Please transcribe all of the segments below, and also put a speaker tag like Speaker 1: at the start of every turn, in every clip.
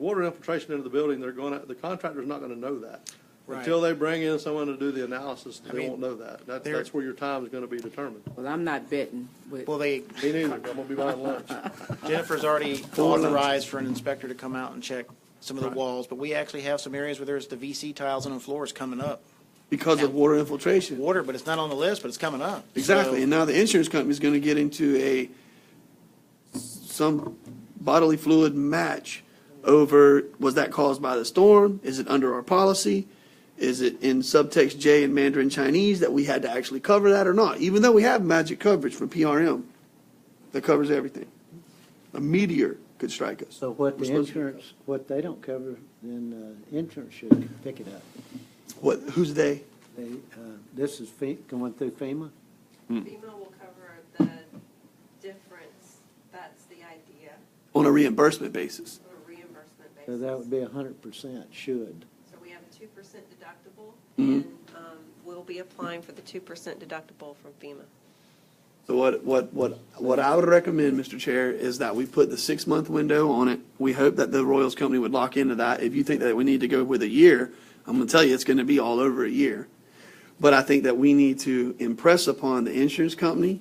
Speaker 1: water infiltration into the building, they're gonna, the contractor's not gonna know that.
Speaker 2: Right.
Speaker 1: Until they bring in someone to do the analysis,
Speaker 2: I
Speaker 1: they
Speaker 2: mean,
Speaker 1: won't know that. That,
Speaker 2: they're-
Speaker 1: that's where your time is gonna be determined.
Speaker 3: Well, I'm not betting with,
Speaker 2: Well, they,
Speaker 1: Me neither, I'm gonna be buying lunch.
Speaker 2: Jennifer's already
Speaker 1: Or lunch.
Speaker 2: authorized for an inspector to come out and check some of the walls, but we actually have some areas where there's the VC tiles on the floors coming up.
Speaker 4: because of water infiltration.
Speaker 2: Water, but it's not on the list, but it's coming up.
Speaker 4: Exactly,
Speaker 2: So-
Speaker 4: and now the insurance company's gonna get into a, some bodily fluid match over, was that caused by the storm? Is it under our policy? Is it in subtext J in Mandarin Chinese that we had to actually cover that or not? Even though we have magic coverage from PRM that covers everything. A meteor could strike us.
Speaker 5: So what
Speaker 4: We're
Speaker 5: the
Speaker 4: supposed to-
Speaker 5: insurance, what they don't cover, then uh, insurance should pick it up.
Speaker 4: What, who's they?
Speaker 5: They, uh, this is fe- going through FEMA?
Speaker 6: FEMA will cover the difference, that's the idea,
Speaker 4: On a reimbursement basis.
Speaker 6: on a reimbursement basis.
Speaker 5: So that would be a hundred percent should.
Speaker 6: So we have a two percent deductible, and um, we'll be applying for the two percent deductible from FEMA.
Speaker 4: So what, what, what, what I would recommend, Mr. Chair, is that we put the six-month window on it. We hope that the Royals Company would lock into that. If you think that we need to go with a year, I'm gonna tell you, it's gonna be all over a year. But I think that we need to impress upon the insurance company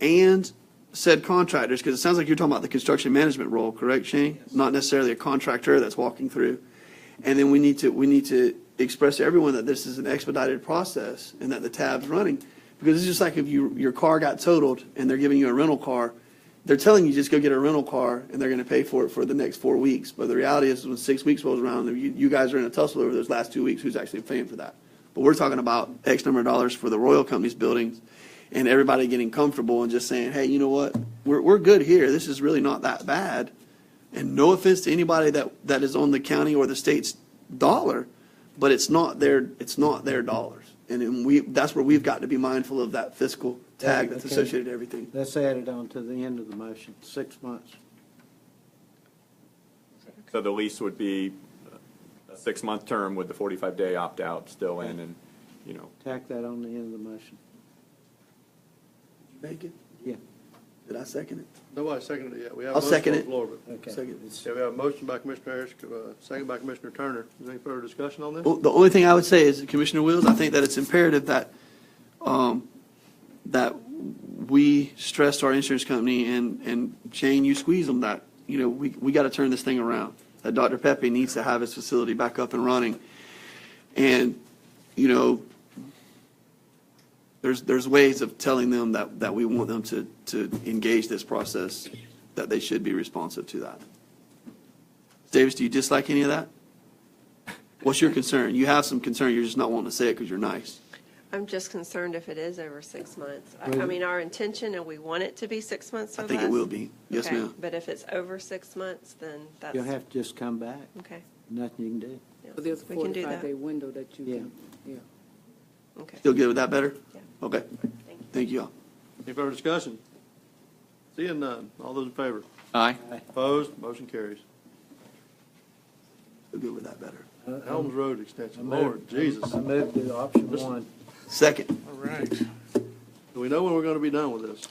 Speaker 4: and said contractors, because it sounds like you're talking about the construction management role, correct, Shane? Not necessarily a contractor that's walking through. And then we need to, we need to express to everyone that this is an expedited process and that the tab's running. Because it's just like if you, your car got totaled and they're giving you a rental car, they're telling you just go get a rental car and they're gonna pay for it for the next four weeks. But the reality is when six weeks rolls around, you, you guys are in a tussle over those last two weeks, who's actually paying for that? But we're talking about X number of dollars for the Royal Company's buildings and everybody getting comfortable and just saying, hey, you know what? We're, we're good here. This is really not that bad. And no offense to anybody that, that is on the county or the state's dollar, but it's not their, it's not their dollars. And then we, that's where we've got to be mindful of that fiscal tag that's
Speaker 5: Okay.
Speaker 4: associated to everything.
Speaker 5: Let's add it on to the end of the motion, six months.
Speaker 7: So the lease would be a six-month term with the 45-day opt-out still in, and, you know,
Speaker 5: Tack that on the end of the motion.
Speaker 4: Make it?
Speaker 5: Yeah,
Speaker 4: Did I second it?
Speaker 1: Nobody seconded it yet. We have a
Speaker 4: I'll
Speaker 1: motion
Speaker 4: second
Speaker 1: on the
Speaker 4: it.
Speaker 1: floor, but-
Speaker 5: okay.
Speaker 4: Second.
Speaker 5: It's-
Speaker 1: Yeah, we have a motion by Commissioner Harris, uh, second by Commissioner Turner. Is there any further discussion on this?
Speaker 4: Well, The only thing I would say is, Commissioner Wills, I think that it's imperative that, um, that we stress to our insurance company, and, and Shane, you squeeze them, that, you know, we, we got to turn this thing around. That Dr. Pepe needs to have his facility back up and running. And, you know, there's, there's ways of telling them that, that we want them to, to engage this process, that they should be responsive to that. Davis, do you dislike any of that? What's your concern? You have some concern, you're just not wanting to say it because you're nice.
Speaker 6: I'm just concerned if it is over six months. I
Speaker 5: Well,
Speaker 6: I mean, our intention, and we want it to be six months or
Speaker 4: I
Speaker 6: less.
Speaker 4: think it will be. Yes,
Speaker 6: Okay,
Speaker 4: ma'am.
Speaker 6: But if it's over six months, then that's,
Speaker 5: You'll have to just come back,
Speaker 6: okay.
Speaker 5: nothing you can do.
Speaker 6: yeah,
Speaker 3: but there's a
Speaker 6: we can do
Speaker 3: forty-five
Speaker 6: that.
Speaker 3: day window that you
Speaker 5: Yeah.
Speaker 3: can, yeah.
Speaker 6: Okay,
Speaker 4: Still good with that better?
Speaker 6: Yeah.
Speaker 4: Okay,
Speaker 6: thank you.
Speaker 4: thank you all.
Speaker 1: Any further discussion? Seeing none. All those in favor?
Speaker 8: Aye.
Speaker 1: Opposed? Motion carries.
Speaker 4: Still good with that better.
Speaker 1: Helms Road Extension,
Speaker 5: I move-
Speaker 1: Lord Jesus.
Speaker 5: I moved to option one.
Speaker 4: Second,
Speaker 2: All right.
Speaker 1: Do we know when we're gonna be done with this?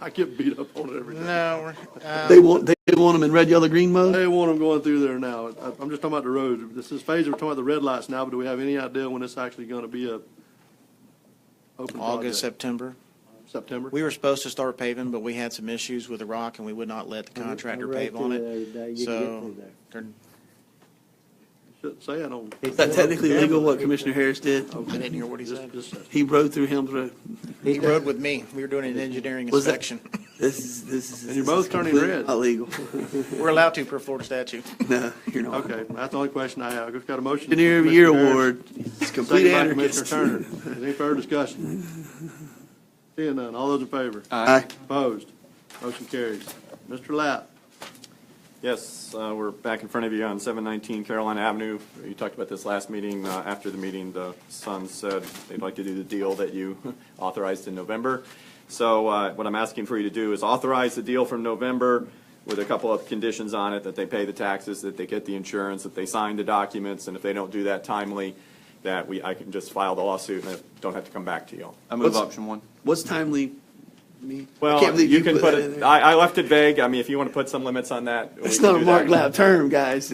Speaker 1: I get beat up on it every day.
Speaker 2: No, we're, um,
Speaker 4: they want, they want them in red, yellow, green mode?
Speaker 1: They want them going through there now. I- I'm just talking about the roads. This is phase, we're talking about the red lights now, but do we have any idea when it's actually gonna be a open
Speaker 2: August,
Speaker 1: project?
Speaker 2: September.
Speaker 1: September?
Speaker 2: We were supposed to start paving, but we had some issues with the rock, and we would not let the contractor
Speaker 5: I rode
Speaker 2: pave on
Speaker 5: through there
Speaker 2: it.
Speaker 5: every day. You can get
Speaker 2: So,
Speaker 5: through there.
Speaker 2: they're-
Speaker 1: Shouldn't say I don't.
Speaker 4: Is that technically legal what Commissioner Harris did?
Speaker 2: I didn't hear what he
Speaker 1: Just-
Speaker 2: said.
Speaker 1: just-
Speaker 4: He rode through Helms Road.
Speaker 2: He rode with me. We were doing an engineering
Speaker 4: Was that-
Speaker 2: inspection.
Speaker 4: This is, this is.
Speaker 1: And you're
Speaker 4: this is
Speaker 1: both turning
Speaker 4: completely
Speaker 1: red.
Speaker 4: Not legal.
Speaker 2: We're allowed to per Florida statute.
Speaker 4: No, you're not.
Speaker 1: Okay, that's the only question I have. I've just got a motion. from
Speaker 4: Engineer of the Year
Speaker 1: Commissioner Harris.
Speaker 4: Award, it's complete
Speaker 1: Second by Commissioner
Speaker 4: anarchist.
Speaker 1: Turner. Is Any further discussion? Seeing none, all those in favor?
Speaker 4: Aye.
Speaker 1: Opposed? Motion carries. Mr. Lapp,
Speaker 7: Yes, uh, we're back in front of you on 719 Carolina Avenue. You talked about this last meeting. Uh, After the meeting, the Suns said they'd like to do the deal that you authorized in November. So uh, what I'm asking for you to do is authorize the deal from November with a couple of conditions on it, that they pay the taxes, that they get the insurance, that they sign the documents, and if they don't do that timely, that we, I can just file the lawsuit and I don't have to come back to you.
Speaker 8: I move
Speaker 4: What's-
Speaker 8: option one.
Speaker 4: What's timely me. I can't
Speaker 7: Well,
Speaker 4: believe
Speaker 7: you can
Speaker 4: put
Speaker 7: put
Speaker 4: that in
Speaker 7: it,
Speaker 4: there.
Speaker 7: I, I left it vague. I mean, if you want to put some limits on that. we
Speaker 4: It's
Speaker 7: can
Speaker 4: not a
Speaker 7: do
Speaker 4: Mark
Speaker 7: that.
Speaker 4: Lab term, guys.